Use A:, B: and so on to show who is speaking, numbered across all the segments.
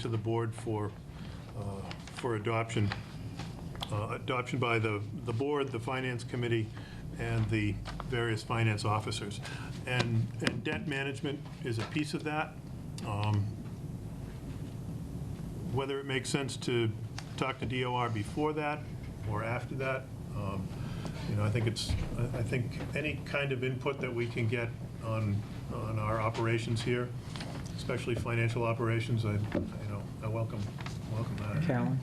A: to the board for, uh, for adoption. Uh, Adoption by the, the board, the finance committee, and the various finance officers. And, and debt management is a piece of that. Um, Whether it makes sense to talk to DOR before that or after that, um, you know, I think it's, I- I think any kind of input that we can get on, on our operations here, especially financial operations, I, you know, I welcome, welcome that.
B: Carolyn?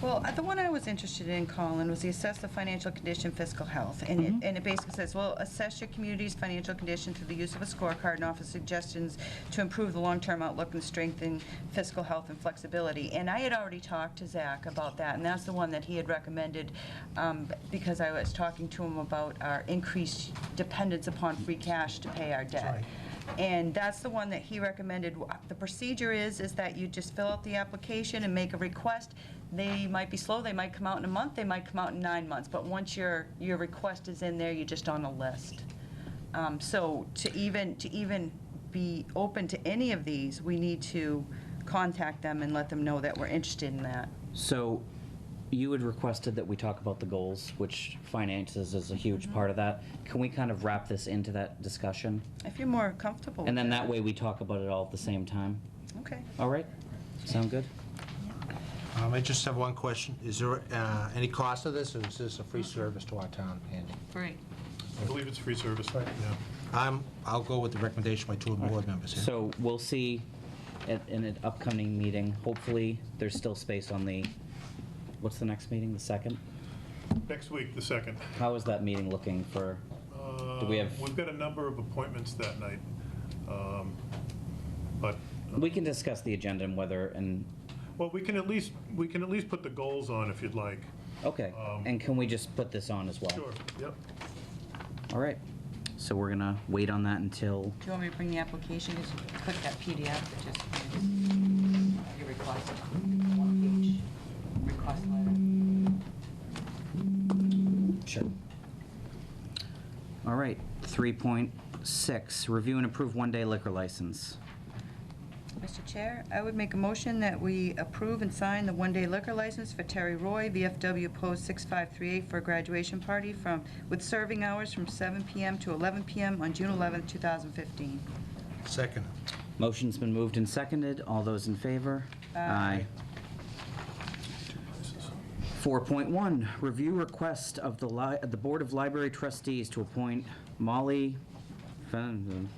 C: Well, uh, the one I was interested in, Colin, was the assess the financial condition, fiscal health. And it, and it basically says, well, assess your community's financial condition through the use of a scorecard and offer suggestions to improve the long-term outlook and strengthen fiscal health and flexibility. And I had already talked to Zach about that, and that's the one that he had recommended, um, because I was talking to him about our increased dependence upon free cash to pay our debt.
A: right.
C: And that's the one that he recommended. The procedure is, is that you just fill out the application and make a request. They might be slow, they might come out in a month, they might come out in nine months, but once your, your request is in there, you're just on a list. Um, So to even, to even be open to any of these, we need to contact them and let them know that we're interested in that.
B: So you had requested that we talk about the goals, which finances is a huge part of that. Can we kind of wrap this into that discussion?
C: If you're more comfortable with
B: And
C: that.
B: then that way we talk about it all at the same time?
C: Okay.
B: All right? Sound good?
D: Um, I just have one question. Is there uh, any cost of this, or is this a free service to our town, Andy?
E: Right.
A: I believe it's free service, right? Yeah.
D: I'm, I'll go with the recommendation by two of the board members here.
B: So we'll see at, in an upcoming meeting. Hopefully, there's still space on the, what's the next meeting, the second?
A: Next week, the second. Uh,
B: How is that meeting looking for, do we have,
A: We've got a number of appointments that night, um, but,
B: we can discuss the agenda and whether, and,
A: well, we can at least, we can at least put the goals on if you'd like.
B: okay.
A: Um,
B: And can we just put this on as well?
A: Sure, yep.
B: All right. So we're gonna wait on that until,
E: Do you want me to bring the application, just click that PDF, that just, your request, one page, request letter.
B: sure. All right, three point six, review and approve one-day liquor license.
C: Mr. Chair, I would make a motion that we approve and sign the one-day liquor license for Terry Roy, VFW Post 6538, for a graduation party from, with serving hours from 7 PM to 11 PM on June 11th, 2015.
D: Second.
B: Motion's been moved and seconded. All those in favor? Aye. 4.1, review request of the li, the Board of Library Trustees to appoint Molly Fen-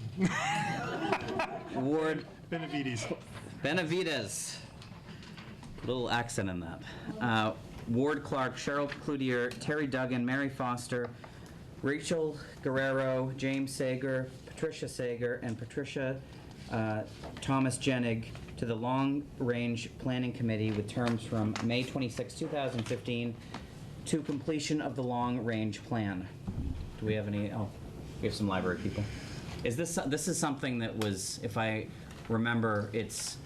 B: Ward
A: Benavides.
B: Benavides. Little accent in that. Uh, Ward Clark, Cheryl Cloutier, Terry Duggan, Mary Foster, Rachel Guerrero, James Sager, Patricia Sager, and Patricia uh, Thomas Jenig to the Long Range Planning Committee with terms from May 26, 2015 to completion of the Long Range Plan. Do we have any, oh, we have some library people. Is this, this is something that was, if I remember, it's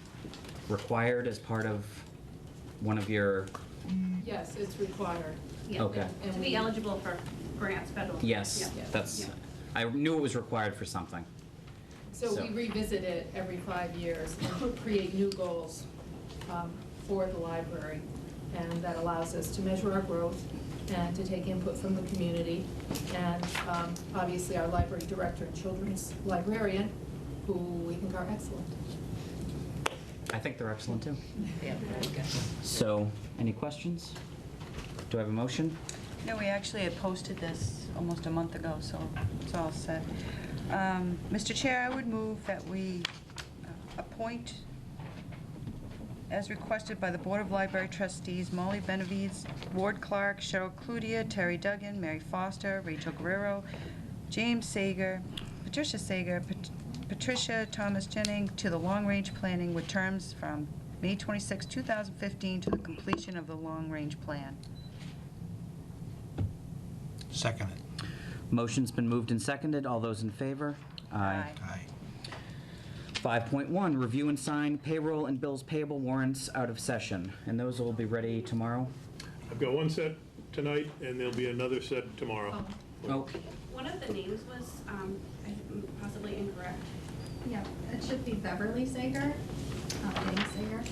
B: required as part of one of your,
F: Yes, it's required.
G: Yeah,
B: Okay.
G: To be eligible for grants, federal.
B: yes,
G: Yeah.
B: that's,
G: Yeah.
B: I knew it was required for something.
F: So we
B: So-
F: revisit it every five years and create new goals um, for the library. And that allows us to measure our growth and to take input from the community. And um, obviously, our library director and children's librarian, who we think are excellent.
B: I think they're excellent too.
E: Yeah, very good.
B: So, any questions? Do I have a motion?
C: No, we actually had posted this almost a month ago, so it's all set. Um, Mr. Chair, I would move that we uh, appoint, as requested by the Board of Library Trustees, Molly Benavides, Ward Clark, Cheryl Cludier, Terry Duggan, Mary Foster, Rachel Guerrero, James Sager, Patricia Sager, Pat- Patricia Thomas Jennings to the Long Range Planning with terms from May 26, 2015 to the completion of the Long Range Plan.
D: Second.
B: Motion's been moved and seconded. All those in favor?
C: Aye.
D: Aye.
B: 5.1, review and sign payroll and bills payable warrants out of session. And those will be ready tomorrow?
A: I've got one set tonight, and there'll be another set tomorrow.
B: Oh,
G: One of the names was um, I- possibly incorrect.
H: Yeah, it should be Beverly Sager, not Dana Sager.